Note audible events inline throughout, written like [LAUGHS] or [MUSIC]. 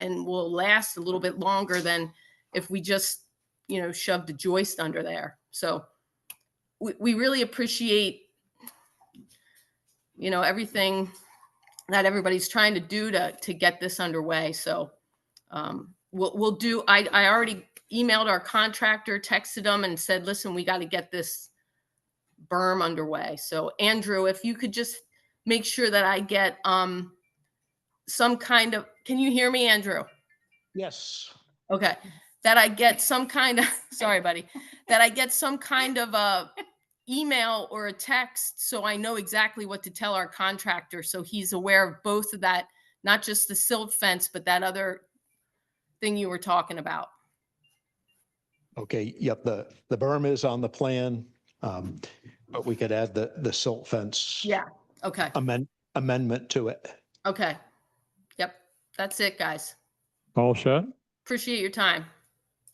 and will last a little bit longer than if we just, you know, shoved a joist under there. So we, we really appreciate, you know, everything that everybody's trying to do to, to get this underway. So um, we'll, we'll do, I, I already emailed our contractor, texted them and said, listen, we got to get this berm underway. So Andrew, if you could just make sure that I get um, some kind of, can you hear me, Andrew? Yes, Okay, that I get some kind of, [LAUGHS] sorry, buddy, that I get some kind of a email or a text so I know exactly what to tell our contractor, so he's aware of both of that, not just the silt fence, but that other thing you were talking about. okay, yep, the, the berm is on the plan. um, But we could add the, the silt fence. Yeah. Okay, Amend, amendment to it. okay. Yep, that's it, guys. All set. Appreciate your time.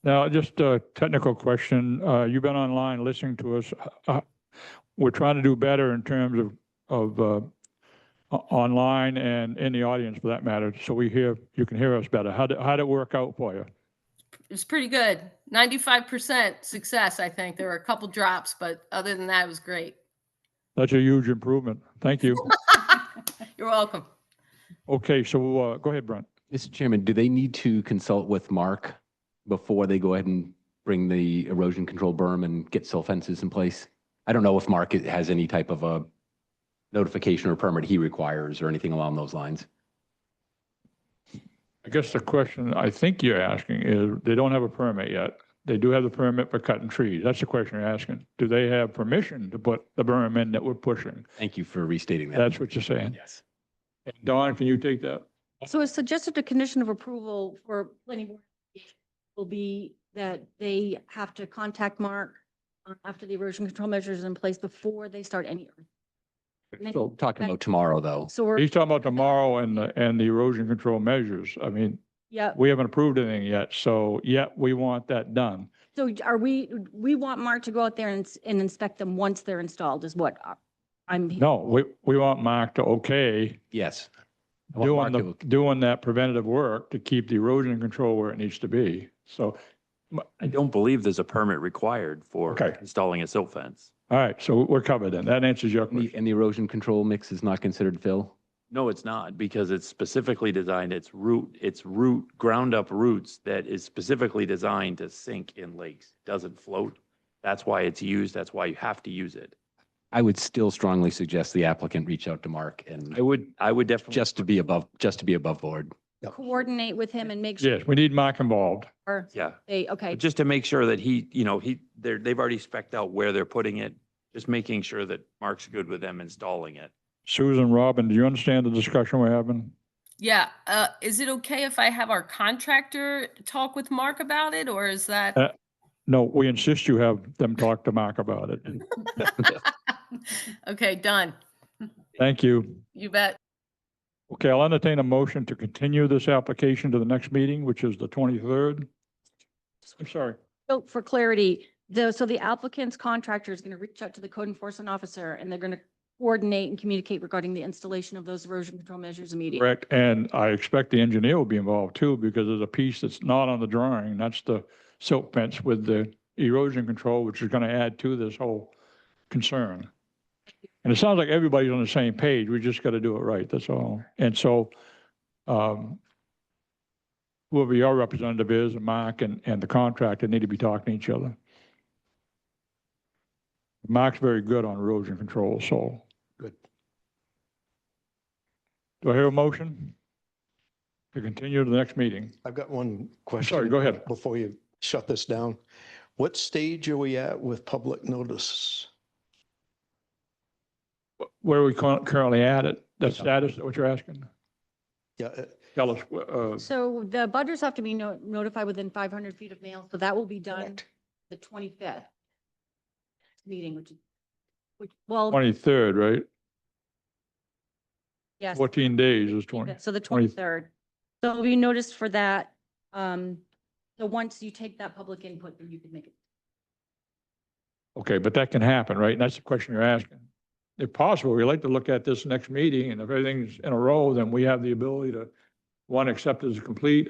Now, just a technical question. Uh, You've been online listening to us. Uh, We're trying to do better in terms of, of uh, o- online and in the audience for that matter, so we hear, you can hear us better. How'd, it- how'd it work out for you? It was pretty good. Ninety-five percent success, I think. There were a couple drops, but other than that, it was great. That's a huge improvement. Thank you. You're welcome. Okay, so uh, go ahead, Brent. Mr. Chairman, do they need to consult with Mark before they go ahead and bring the erosion control berm and get silt fences in place? I don't know if Mark has any type of a notification or permit he requires or anything along those lines. I guess the question I think you're asking is, they don't have a permit yet. They do have the permit for cutting trees. That's the question you're asking. Do they have permission to put the berm in that we're pushing? Thank you for restating that. That's what you're saying. Yes. And Don, can you take that? So it's suggested a condition of approval for planning board will be that they have to contact Mark uh, after the erosion control measures are in place before they start any. Many- So talking about tomorrow, though. So we're, He's talking about tomorrow and, the and the erosion control measures. I mean, yeah, we haven't approved anything yet, so yet we want that done. so are we, we want Mark to go out there and, ins- and inspect them once they're installed is what uh, I'm. he- No, we, we want Mark to okay Yes. I want doing Mark the, to- doing that preventative work to keep the erosion control where it needs to be. So, I don't believe there's a permit required for Okay. installing a silt fence. all right, so we're covered then. That answers your And the- question. and the erosion control mix is not considered fill? No, it's not, because it's specifically designed, it's root, it's root, ground up roots that is specifically designed to sink in lakes, doesn't float. That's why it's used, that's why you have to use it. I would still strongly suggest the applicant reach out to Mark and I would, I would definitely. just to be above, just to be above board. Coordinate with him and make sure Yes, we need Mark involved. Yeah, they, okay, but just to make sure that he, you know, he, they're, they've already spec'd out where they're putting it, just making sure that Mark's good with them installing it. Susan, Robin, do you understand the discussion we're having? Yeah, uh, is it okay if I have our contractor talk with Mark about it, or is that? [LAUGHS] Uh, No, we insist you have them talk to Mark about it. Okay, done. Thank you. You bet. Okay, I'll entertain a motion to continue this application to the next meeting, which is the 23rd. I'm sorry. so for clarity, though, so the applicant's contractor is going to reach out to the code enforcement officer and they're going to coordinate and communicate regarding the installation of those erosion control measures immediately. Correct, and I expect the engineer will be involved too, because there's a piece that's not on the drawing, that's the silt fence with the erosion control, which is going to add to this whole concern. And it sounds like everybody's on the same page, we just got to do it right, that's all. And so um, whoever your representative is, and Mark and, and the contractor need to be talking to each other. Mark's very good on erosion control, so Good. do I hear a motion? To continue to the next meeting. I've got one question. go ahead. Before you shut this down, what stage are we at with public notice? Where are we cur- currently at it? The status, what you're asking? Yeah, uh, Tell us, uh, So the butters have to be no- notified within 500 feet of mail, so that will be done correct. the 25th meeting, which, is- which, well, 23rd, right? yes. 14 days is 20. So the 20 23rd. So it'll be noticed for that. Um, so once you take that public input, then you can make it. Okay, but that can happen, right? And that's the question you're asking. If possible, we'd like to look at this next meeting, and if everything's in a row, then we have the ability to, one, accept as complete,